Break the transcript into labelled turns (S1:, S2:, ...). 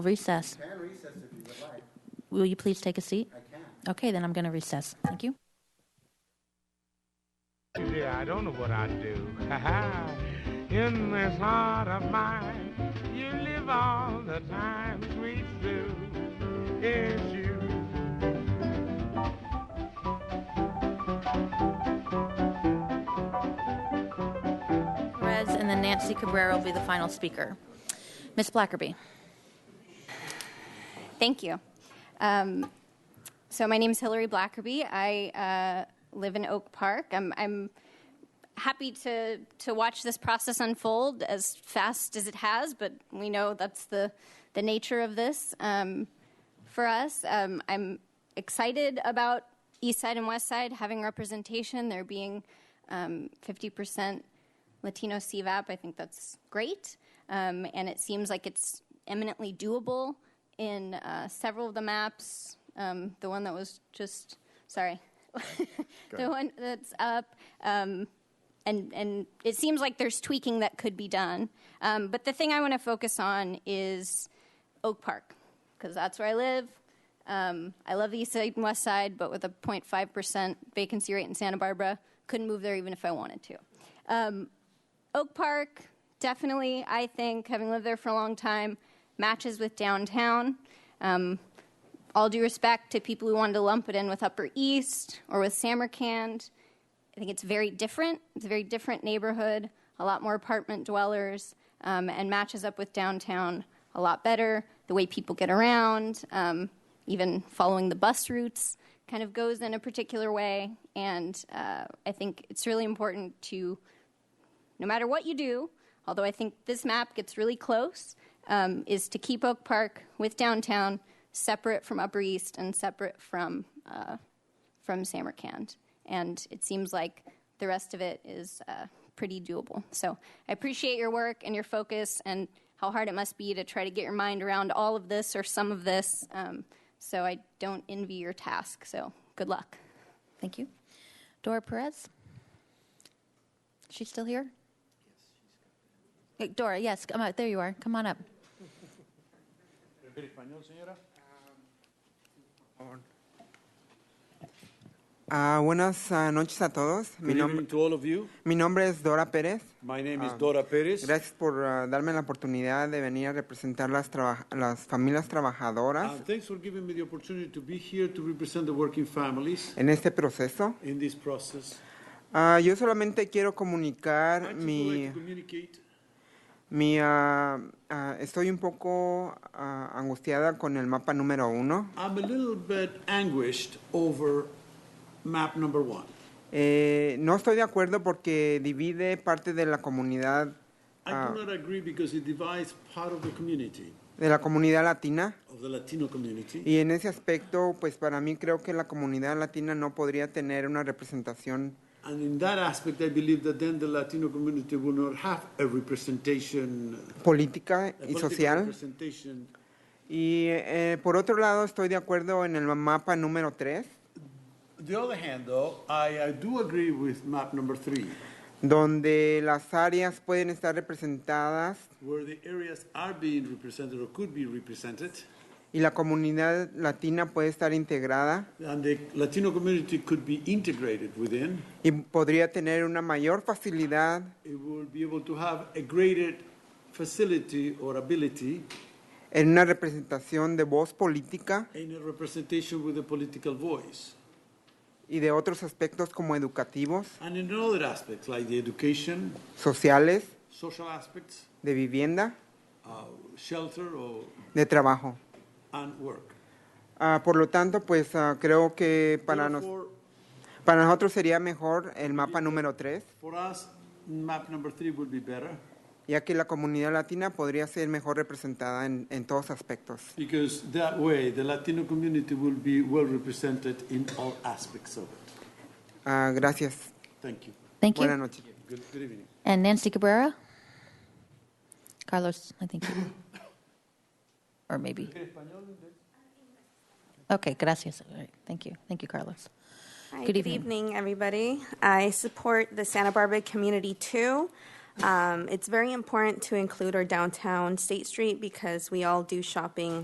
S1: recess.
S2: Can recess if you would like.
S1: Will you please take a seat?
S2: I can.
S1: Okay, then I'm going to recess. Thank you.
S3: Yeah, I don't know what I'd do. In this heart of mine, you live all the time, sweet Sue. It's you.
S1: Perez and then Nancy Cabrera will be the final speaker. Ms. Blackerby.
S4: Thank you. Um, so my name is Hillary Blackerby. I uh, live in Oak Park. I'm, I'm happy to to watch this process unfold as fast as it has, but we know that's the the nature of this. Um, for us, um, I'm excited about East Side and West Side having representation. There being um, 50% Latino CVAP. I think that's great, um, and it seems like it's eminently doable in uh, several of the maps. Um, the one that was just sorry, the one that's up, um, and and it seems like there's tweaking that could be done. Um, but the thing I want to focus on is Oak Park because that's where I live. Um, I love the East Side and West Side, but with a 0.5% vacancy rate in Santa Barbara, couldn't move there even if I wanted to. Um, Oak Park, definitely, I think, having lived there for a long time, matches with downtown. Um, all due respect to people who wanted to lump it in with Upper East or with Samarkand, I think it's very different. It's a very different neighborhood, a lot more apartment dwellers, um, and matches up with downtown a lot better. The way people get around, um, even following the bus routes, kind of goes in a particular way. And uh, I think it's really important to, no matter what you do, although I think this map gets really close, um, is to keep Oak Park with downtown separate from Upper East and separate from uh, from Samarkand, and it seems like the rest of it is uh, pretty doable. So I appreciate your work and your focus and how hard it must be to try to get your mind around all of this or some of this. Um, so I don't envy your task. So good luck.
S1: Thank you. Dora Perez. She's still here? Hey, Dora, yes, come on, there you are. Come on up.
S5: Ah, buenas ah, noches a todos. Mi,
S6: Good
S5: nom-
S6: evening to all of you.
S5: mi nombre es Dora Pérez.
S6: My name is
S5: Ah,
S6: Dora Perez.
S5: Gracias por ah, darme la oportunidad de venir a representar las, traba- las familias trabajadoras
S6: Uh, thanks for giving me the opportunity to be here to represent the working families
S5: en este proceso.
S6: in this process.
S5: Ah, yo solamente quiero
S6: I
S5: comunicar
S6: just would like
S5: mi...
S6: to communicate.
S5: mi ah, ah, estoy un poco ah, angustiada con el mapa número uno.
S6: I'm a little bit anguished over map number one.
S5: Eh, no estoy de acuerdo porque divide parte de la comunidad,
S6: I
S5: Ah.
S6: do not agree because it divides part of the community,
S5: de la comunidad latina.
S6: of the Latino community.
S5: Y en ese aspecto, pues para mí creo que la comunidad latina no podría tener una representación
S6: And in that aspect, I believe that then the Latino community will not have a representation,
S5: política
S6: a
S5: y
S6: political
S5: social.
S6: representation.
S5: Y eh, por otro lado, estoy de acuerdo en el mapa número 3,
S6: The other hand, though, I, I do agree with map number three.
S5: donde las áreas pueden estar representadas
S6: where the areas are being represented or could be represented,
S5: y la comunidad latina puede estar integrada
S6: and the Latino community could be integrated within,
S5: y podría tener una mayor facilidad
S6: it will be able to have a greater facility or ability
S5: en una representación de voz política
S6: in a representation with a political voice.
S5: y de otros aspectos como educativos,
S6: And in other aspects, like the education,
S5: sociales,
S6: social aspects,
S5: de vivienda,
S6: uh, shelter, or,
S5: de trabajo.
S6: and work.
S5: Ah, por lo tanto, pues ah, creo que para, nos-
S6: Therefore,
S5: para nosotros sería mejor el mapa número 3,
S6: for us, map number three would be better
S5: ya que la comunidad latina podría ser mejor representada en, en todos aspectos.
S6: because that way the Latino community will be well represented in all aspects of it.
S5: Ah, gracias.
S6: Thank you.
S1: Thank
S5: Buenas
S1: you.
S5: noches.
S6: Good, good evening.
S1: And Nancy Cabrera? Carlos, I think you. Or maybe. Okay, gracias. All right, thank you. Thank you, Carlos.
S7: Hi,
S1: Good
S7: good
S1: evening.
S7: evening, everybody. I support the Santa Barbara Community 2.
S2: Um, it's very important to include our downtown State Street because we all do shopping